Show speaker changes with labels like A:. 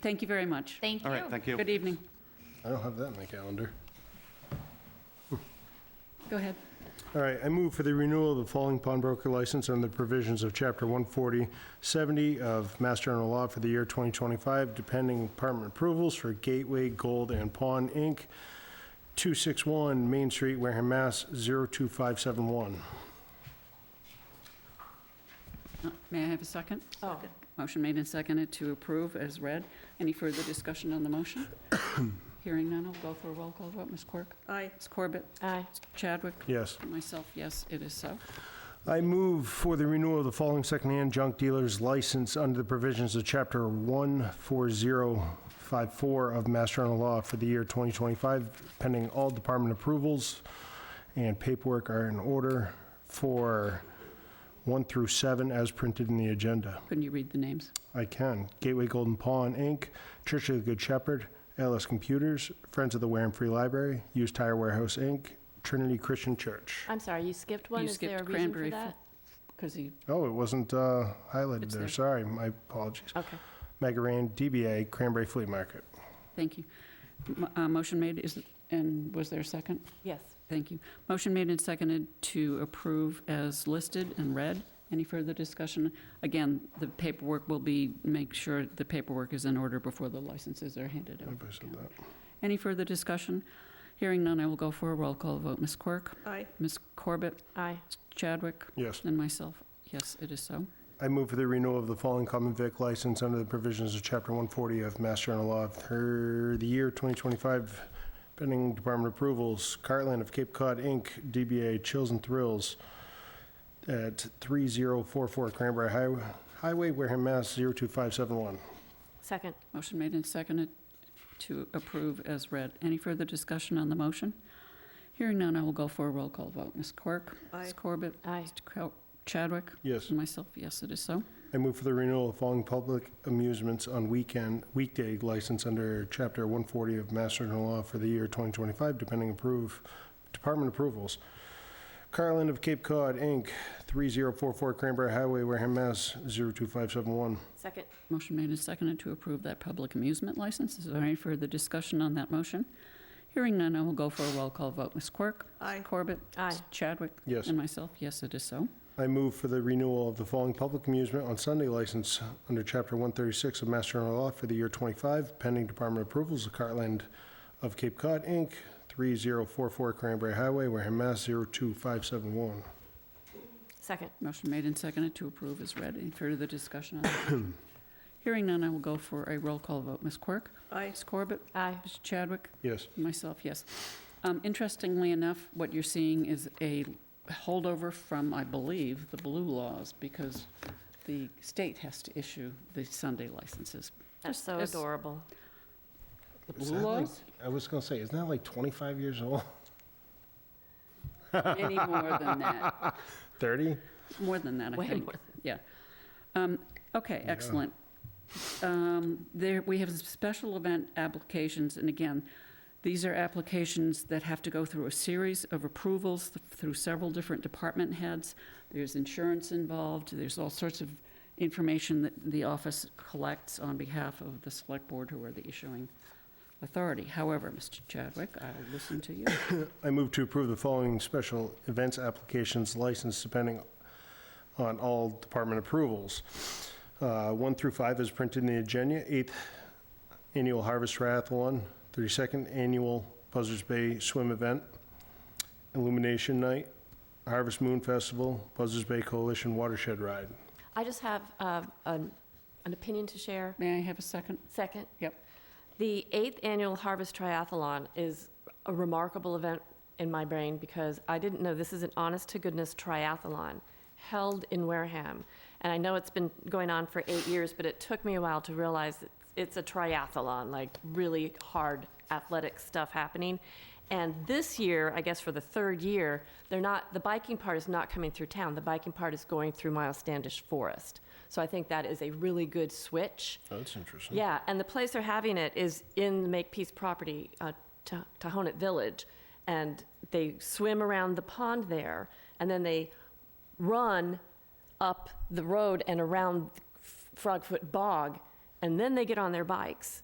A: Thank you very much.
B: Thank you.
C: All right, thank you.
A: Good evening.
D: I don't have that in my calendar.
A: Go ahead.
D: All right, I move for the renewal of the following pawnbroker license under the provisions of Chapter 14070 of Mass General Law for the year 2025, depending department approvals for Gateway Gold and Pawn, Inc., 261 Main Street, Wareham, Mass. 02571.
A: Uh, May I have a second? Motion made and seconded to approve as read. Any further discussion on the motion? Hearing none, I'll go for a roll call vote. Ms. Quirk?
E: Aye.
A: Ms. Corbett?
B: Aye.
A: Chadwick?
D: Yes.
A: Myself, yes, it is so.
D: I move for the renewal of the following secondhand junk dealer's license under the provisions of Chapter 14054 of Mass General Law for the year 2025, pending all department approvals and paperwork are in order for 1 through 7 as printed in the agenda.
A: Couldn't you read the names?
D: I can. Gateway Golden Pawn, Inc., Church of the Good Shepherd, LS Computers, Friends of the Wareham Free Library, Used Tire Warehouse, Inc., Trinity Christian Church.
B: I'm sorry, you skipped one?
A: You
B: Is there a
A: skipped
B: reason
A: cranberry
B: for
A: fr-
B: that?
A: Because he,
D: Oh, it wasn't uh, highlighted
A: It's
D: there,
A: there.
D: sorry, my apologies.
B: Okay.
D: Megaran, DBA, Cranberry Flea Market.
A: thank you. M- uh, Motion made is, and was there a second?
B: Yes.
A: Thank you. Motion made and seconded to approve as listed and read. Any further discussion? Again, the paperwork will be, make sure the paperwork is in order before the licenses are handed out.
D: If I said that.
A: Any further discussion? Hearing none, I will go for a roll call vote. Ms. Quirk,
E: Aye.
A: Ms. Corbett,
B: Aye.
A: Chadwick,
D: Yes.
A: and myself. Yes, it is so.
D: I move for the renewal of the following common vic license under the provisions of Chapter 140 of Mass General Law for the year 2025, pending department approvals. Cartland of Cape Cod, Inc., DBA Chills and Thrills at 3044 Cranberry Highway, Highway, Wareham, Mass. 02571.
B: Second.
A: Motion made and seconded to approve as read. Any further discussion on the motion? Hearing none, I will go for a roll call vote. Ms. Quirk, Ms.
E: Aye.
A: Corbett,
B: Aye.
A: Mr. Crow- Chadwick,
D: Yes.
A: And myself, yes, it is so.
D: I move for the renewal of following public amusements on weekend, weekday license under Chapter 140 of Mass General Law for the year 2025, depending approve, department approvals. Carland of Cape Cod, Inc., 3044 Cranberry Highway, Wareham, Mass. 02571.
B: Second.
A: Motion made and seconded to approve that public amusement license. Is there any further discussion on that motion? Hearing none, I will go for a roll call vote. Ms. Quirk?
E: Aye.
A: Corbett?
B: Aye.
A: Chadwick?
D: Yes.
A: And myself, yes, it is so.
D: I move for the renewal of the following public amusement on Sunday license under Chapter 136 of Mass General Law for the year 25, pending department approvals of Cartland of Cape Cod, Inc., 3044 Cranberry Highway, Wareham, Mass. 02571.
B: Second.
A: Motion made and seconded to approve is read. Any further discussion on that? Hearing none, I will go for a roll call vote. Ms. Quirk?
E: Aye.
A: Ms. Corbett?
B: Aye.
A: Ms. Chadwick?
D: Yes.
A: Myself, yes. Um, Interestingly enough, what you're seeing is a holdover from, I believe, the blue laws, because the state has to issue the Sunday licenses.
B: That's so
A: Just-
B: adorable.
A: The
D: Is
A: blue
D: that like-
A: laws?
D: I was gonna say, isn't that like 25 years old?
A: Any more than that,
D: 30?
A: more than that, I
B: Way
A: think.
B: more.
A: Um, Okay, excellent. Um, There, we have special event applications, and again, these are applications that have to go through a series of approvals th- through several different department heads. There's insurance involved, there's all sorts of information that the office collects on behalf of the select board who are the issuing authority. However, Mr. Chadwick, I will listen to you.
D: I move to approve the following special events applications license depending on all department approvals. Uh, 1 through 5 is printed in the agenda, 8th Annual Harvest Triathlon, 32nd Annual Buzzards Bay Swim Event, Illumination Night, Harvest Moon Festival, Buzzards Bay Coalition Watershed Ride.
B: I just have uh, an an opinion to share.
A: May I have a second?
B: Second.
A: Yep.
B: The eighth annual Harvest Triathlon is a remarkable event in my brain because I didn't know this is an honest to goodness triathlon held in Wareham. And I know it's been going on for eight years, but it took me a while to realize that it's a triathlon, like really hard athletic stuff happening. And this year, I guess for the third year, they're not, the biking part is not coming through town. The biking part is going through Miles Standish Forest. So I think that is a really good switch.
D: That's interesting.
B: Yeah, and the place they're having it is in the Makepeace property, uh, Ta- Tahonet Village. And they swim around the pond there, and then they run up the road and around Frogfoot Bog and then they get on their bikes